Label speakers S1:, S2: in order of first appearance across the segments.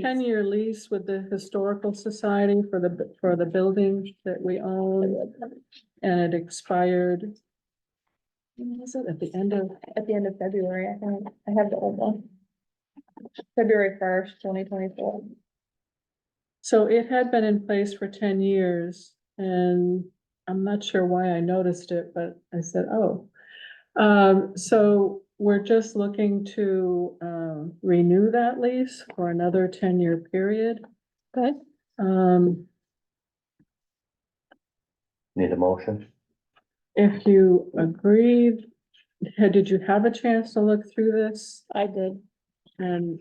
S1: ten-year lease with the Historical Society for the, for the building that we own, and it expired. When was it? At the end of,
S2: At the end of February, I think, I have the old one. February first, twenty twenty-four.
S1: so it had been in place for ten years, and I'm not sure why I noticed it, but I said, oh. Um, so we're just looking to, um, renew that lease for another ten-year period.
S2: Good.
S1: Um,
S3: Need a motion?
S1: If you agreed, had- did you have a chance to look through this?
S2: I did.
S1: And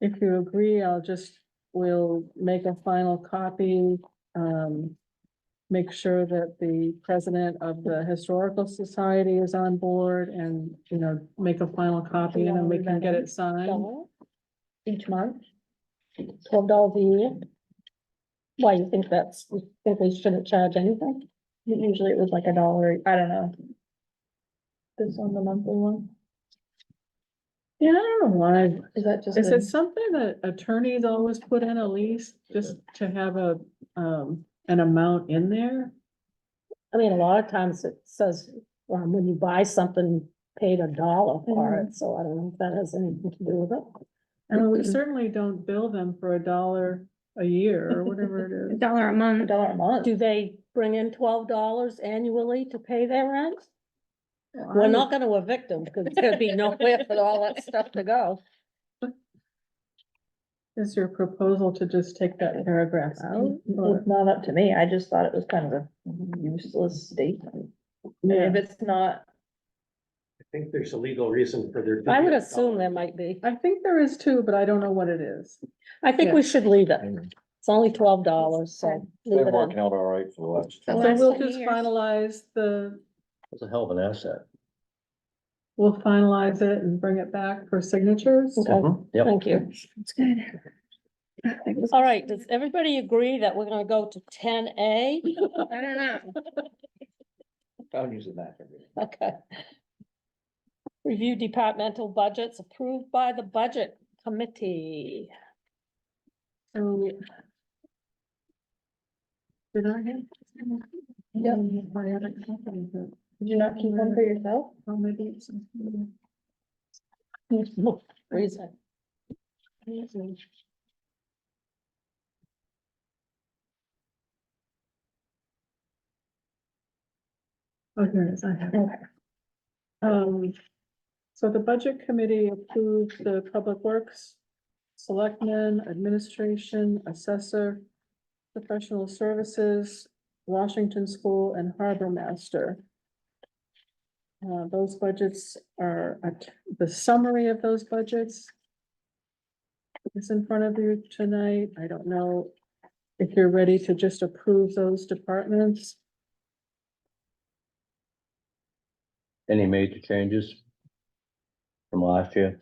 S1: if you agree, I'll just, we'll make a final copy. Um, make sure that the president of the Historical Society is on board and, you know, make a final copy and then we can get it signed.
S2: Dollar Um, Each month. Twelve dollars a year. Why, you think that's, you think we shouldn't charge anything? Usually it was like a dollar, I don't know. This one, the monthly one,
S1: Yeah, I don't know why.
S2: is that just?
S1: Is
S2: a-
S1: it something that attorneys always put in a lease, just to have a, um, an amount in there?
S4: I mean, a lot of times it says, um, when you buy something, paid a dollar for
S2: Mm-hmm.
S4: it, so I don't know if that has anything to do with it.
S1: I mean, we certainly don't bill them for a dollar a year or whatever it
S5: A
S1: is.
S5: dollar a
S2: A
S5: month.
S2: dollar a month.
S4: Do they bring in twelve dollars annually to pay their rent?
S1: Well, I
S4: We're
S1: would-
S4: not gonna evict them, because there'd be nowhere for all that stuff to go.
S1: Is your proposal to just take that paragraph out? or-
S2: It's not up to me. I just thought it was kind of a useless statement.
S1: Yeah,
S2: And if it's not,
S6: I think there's a legal reason for there. to
S4: I
S6: be
S4: would
S6: a
S4: assume
S6: dollar.
S4: there might be.
S1: I think there is too, but I don't know what it is.
S4: I think we should leave it. It's only twelve dollars, so leave it in.
S3: out all right for the last.
S5: The
S1: So
S5: last
S1: we'll
S5: 10
S1: just
S5: years.
S1: finalize the,
S3: It's a hell of an asset.
S1: we'll finalize it and bring it back for signatures.
S4: Okay,
S6: Mm-hmm.
S3: Yep,
S4: thank you.
S5: It's good. I think it was-
S4: All right, does everybody agree that we're gonna go to ten A?
S5: Oh, I don't know.
S3: I'm using that. every day.
S4: Okay. Review departmental budgets approved by the budget committee.
S1: So- Did I have?
S2: Yeah.
S1: I haven't copied it.
S2: did you not keep one for yourself?
S1: Oh, maybe it's. I Oh,
S4: Reason.
S1: Oh, here it is, I have. it. Um, so the budget committee approved the public works, selectmen, administration, assessor, professional services, Washington School and harbor master. Uh, those budgets are, the summary of those budgets is in front of you tonight. I don't know if you're ready to just approve those departments.
S3: Any major changes? From last year?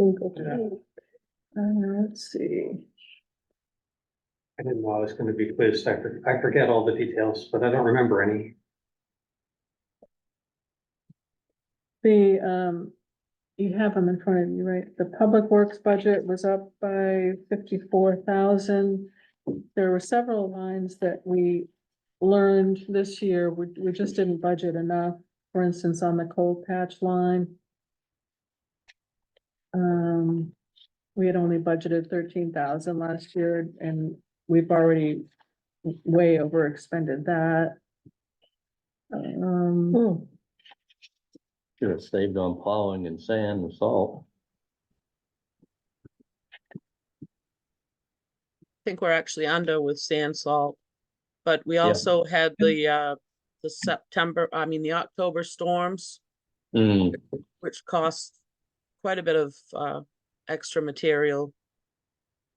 S1: Uh, let's see.
S6: I didn't know I was gonna be quizzed. I for- I forget all the details, but I don't remember any.
S1: The, um, you have them in front of you, right? The public works budget was up by fifty-four thousand. There were several lines that we learned this year, we, we just didn't budget enough, for instance, on the cold patch line. Um, we had only budgeted thirteen thousand last year and we've already way over expended that. Um.
S4: Hmm,
S3: Should have saved on plowing and sand and salt.
S7: think we're actually under with sand salt. But we
S3: Yeah.
S7: also had the, uh, the September, I mean, the October storms,
S3: Hmm,
S7: which cost quite a bit of, uh, extra material.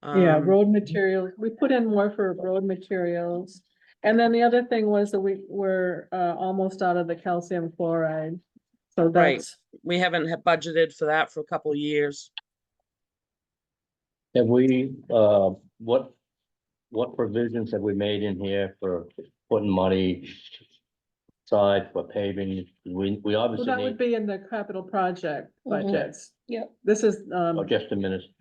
S1: Yeah,
S7: Um,
S1: road material, we put in more for road materials. And then the other thing was that we were uh almost out of the calcium chloride. So that's,
S7: We haven't had budgeted for that for a couple of years.
S3: have we, uh, what, what provisions have we made in here for putting money aside for paving? We, we
S1: well,
S3: obviously
S1: that would
S3: need,
S1: be in the capital project
S4: Mhm.
S1: budgets.
S4: Yep.
S1: This is um,
S3: oh, just a minute,